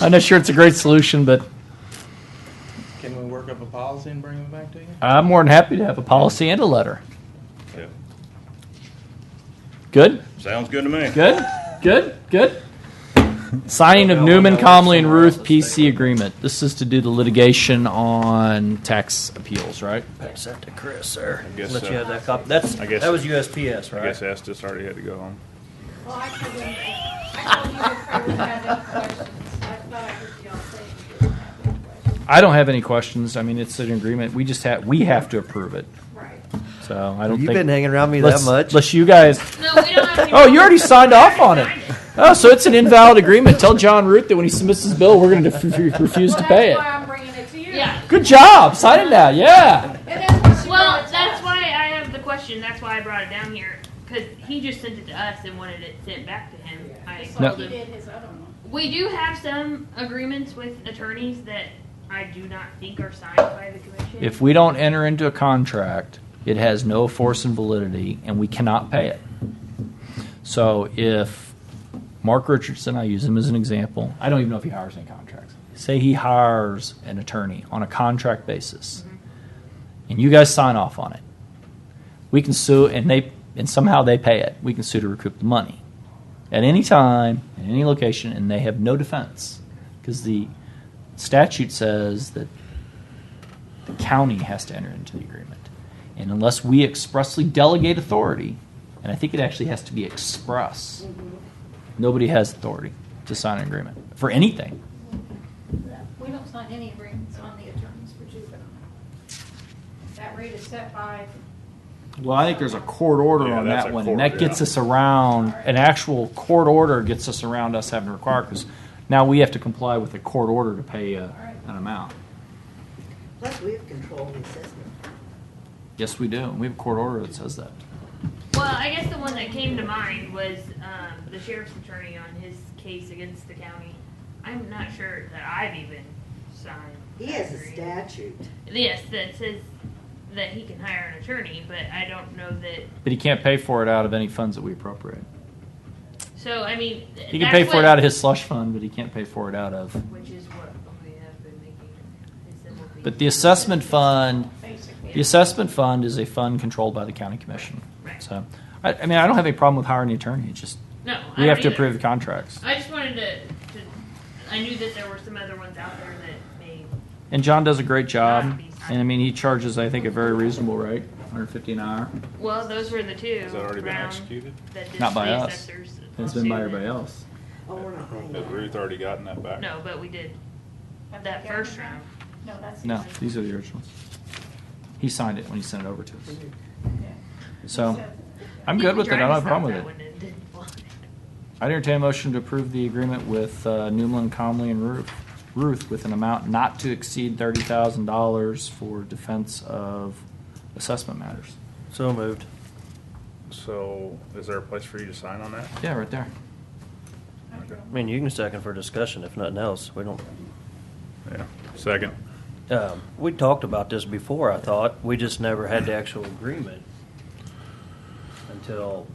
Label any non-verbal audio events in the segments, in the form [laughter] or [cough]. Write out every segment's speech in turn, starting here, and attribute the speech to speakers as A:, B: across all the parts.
A: I'm not sure it's a great solution, but
B: Can we work up a policy and bring them back to you?
A: I'm more than happy to have a policy and a letter.
C: Yeah.
A: Good?
C: Sounds good to me.
A: Good? Good? Good? Signing of Newman, Comley, and Ruth PC agreement. This is to do the litigation on tax appeals, right?
D: Pass that to Chris, sir.
C: I guess
D: Let
C: so.
D: you have that copy. That's,
C: I guess
D: that was USPS,
C: I
D: right?
C: guess uh, Estes already had to go home.
E: Well, I told him, I told him if I would have any questions, I thought I heard y'all say you didn't have any questions.
A: I don't have any questions. I mean, it's an agreement. We just have, we have to approve it.
E: Right.
A: So I don't
F: You've
A: think.
F: been hanging around me that
A: unless-
F: much.
A: Unless you guys,
E: No, we don't
A: [laughs]
E: have any.
A: oh, you already signed off on it. Oh, so it's an invalid agreement. Tell John Root that when he submits his bill, we're going to refuse to pay it.
E: Well, that's why I'm bringing it to you.
G: Yeah.
A: Good job. Sign it now. Yeah.
E: And that's what she
G: Well,
E: wanted to
G: that's
E: us.
G: why I have the question. That's why I brought it down here because he just sent it to us and wanted it sent back to him. I
E: Just
A: No.
E: like
G: told
E: he
G: him
E: did his other one.
G: we do have some agreements with attorneys that I do not think are signed by the commission.
A: If we don't enter into a contract, it has no force and validity, and we cannot pay it. So if Mark Richardson, I use him as an example, I don't even know if he hires any contracts. Say he hires an attorney on a contract basis, and you guys sign off on it. We can sue, and they and somehow they pay it. We can sue to recoup the money at any time, in any location, and they have no defense because the statute says that the county has to enter into the agreement. And unless we expressly delegate authority, and I think it actually has to be express,
C: Mm-hmm.
A: nobody has authority to sign an agreement for anything.
E: We don't sign any agreements on the attorneys for juvenile. That rate is set by,
A: Well, I think there's a court order
C: Yeah,
A: on
C: that's
A: that
C: a
A: one, and
C: court,
A: that gets
C: yeah.
A: us around, an actual court order gets us around us having to require, because now we have to comply with a court order to pay uh, an amount.
H: Plus, we have control of the assessment.
A: Yes, we do, and we have a court order that says that.
G: Well, I guess the one that came to mind was um, the sheriff's attorney on his case against the county. I'm not sure that I've even signed.
H: He
G: that
H: has a
G: agreement.
H: statute.
G: Yes, that says that he can hire an attorney, but I don't know that.
A: But he can't pay for it out of any funds that we appropriate.
G: So I mean, th-
A: He can
G: that's
A: pay for it
G: what-
A: out of his slush fund, but he can't pay for it out of.
G: which is what we have been making. is that what we-
A: But the assessment fund,
E: basically,
A: the assessment fund is a fund controlled by the county commission.
G: Right.
A: So, I, I mean, I don't have any problem with hiring an attorney, it's just,
G: No, I
A: we have
G: don't
A: to
G: either.
A: approve the contracts.
G: I just wanted to, to. I knew that there were some other ones out there that may.
A: And John does a great job, and I mean, he charges, I think, a very reasonable rate, hundred fifty an hour.
G: Well, those were the two.
C: Has that already been
G: Brown,
C: executed?
G: that did
A: Not by
G: the
A: us.
G: assessors,
A: And It's been by
G: lawsuit.
A: everybody else.
H: Oh, we're not paying
C: Has Ruth already gotten that back?
G: No, but we did
E: Have
G: that
E: we got
G: first
E: it?
G: round.
E: No, that's. the
A: No,
E: original.
A: these are the originals. He signed it when he sent it over to us.
E: Yeah.
A: So,
E: said-
A: I'm
G: You
A: good
G: can
A: with it, I
G: drive
A: don't have
G: us
A: a
G: out
A: problem with
G: that
A: it.
G: one and didn't want it.
A: I entertain a motion to approve the agreement with uh, Newman, Comley, and Ruth, Ruth with an amount not to exceed thirty thousand dollars for defense of assessment matters.
F: so moved.
C: So, is there a place for you to sign on that?
A: Yeah, right there.
F: I mean, you can second for discussion if nothing else. We don't.
C: Yeah. Second.
D: Um, we talked about this before. I thought we just never had the actual agreement until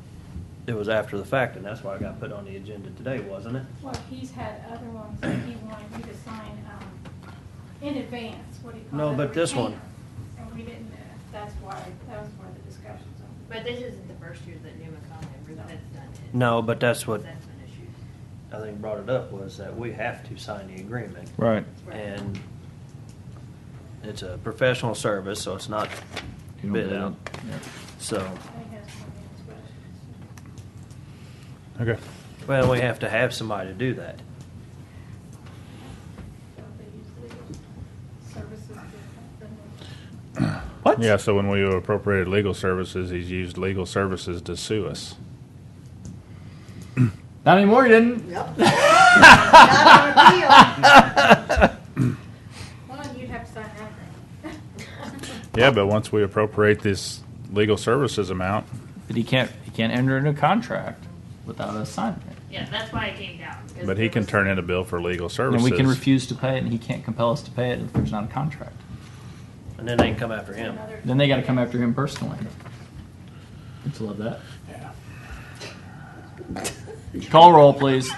D: it was after the fact, and that's why I got put on the agenda today, wasn't it?
E: Well, he's had other ones that he wanted me to sign, um, in advance, what do you call
D: No,
E: that,
D: but this one.
E: retainer. And we didn't, uh, that's why, that was one of the discussions.
G: But this isn't the first year that Newman Conley, that's not it.
D: No, but that's what
G: That's an issue.
D: I think brought it up was that we have to sign the agreement.
A: Right.
D: And it's a professional service, so it's not
A: You don't
D: bid
A: bid
D: out.
A: it.
D: So,
E: I think that's one of his questions.
C: Okay.
D: well, we have to have somebody to do that.
E: Don't they use legal services different than the-
A: What?
C: Yeah, so when we appropriated legal services, he's used legal services to sue us.
A: Not anymore, you didn't. [laughs]
H: Nope. Not on appeal.
E: Well, you'd have to sign that. then. [laughs]
C: Yeah, but once we appropriate this legal services amount,
A: But he can't, he can't enter into a contract without us signing it.
G: [laughs] Yeah, that's why it came down. 'cause
C: but
G: there
C: he can
G: was-
C: turn in a bill for legal services.
A: And we can refuse to pay it, and he can't compel us to pay it if there's not a contract.
D: And then they can come after him.
E: Another-
A: Then they gotta come after him personally. Don't you love that?
H: [laughs]
A: Call roll, please.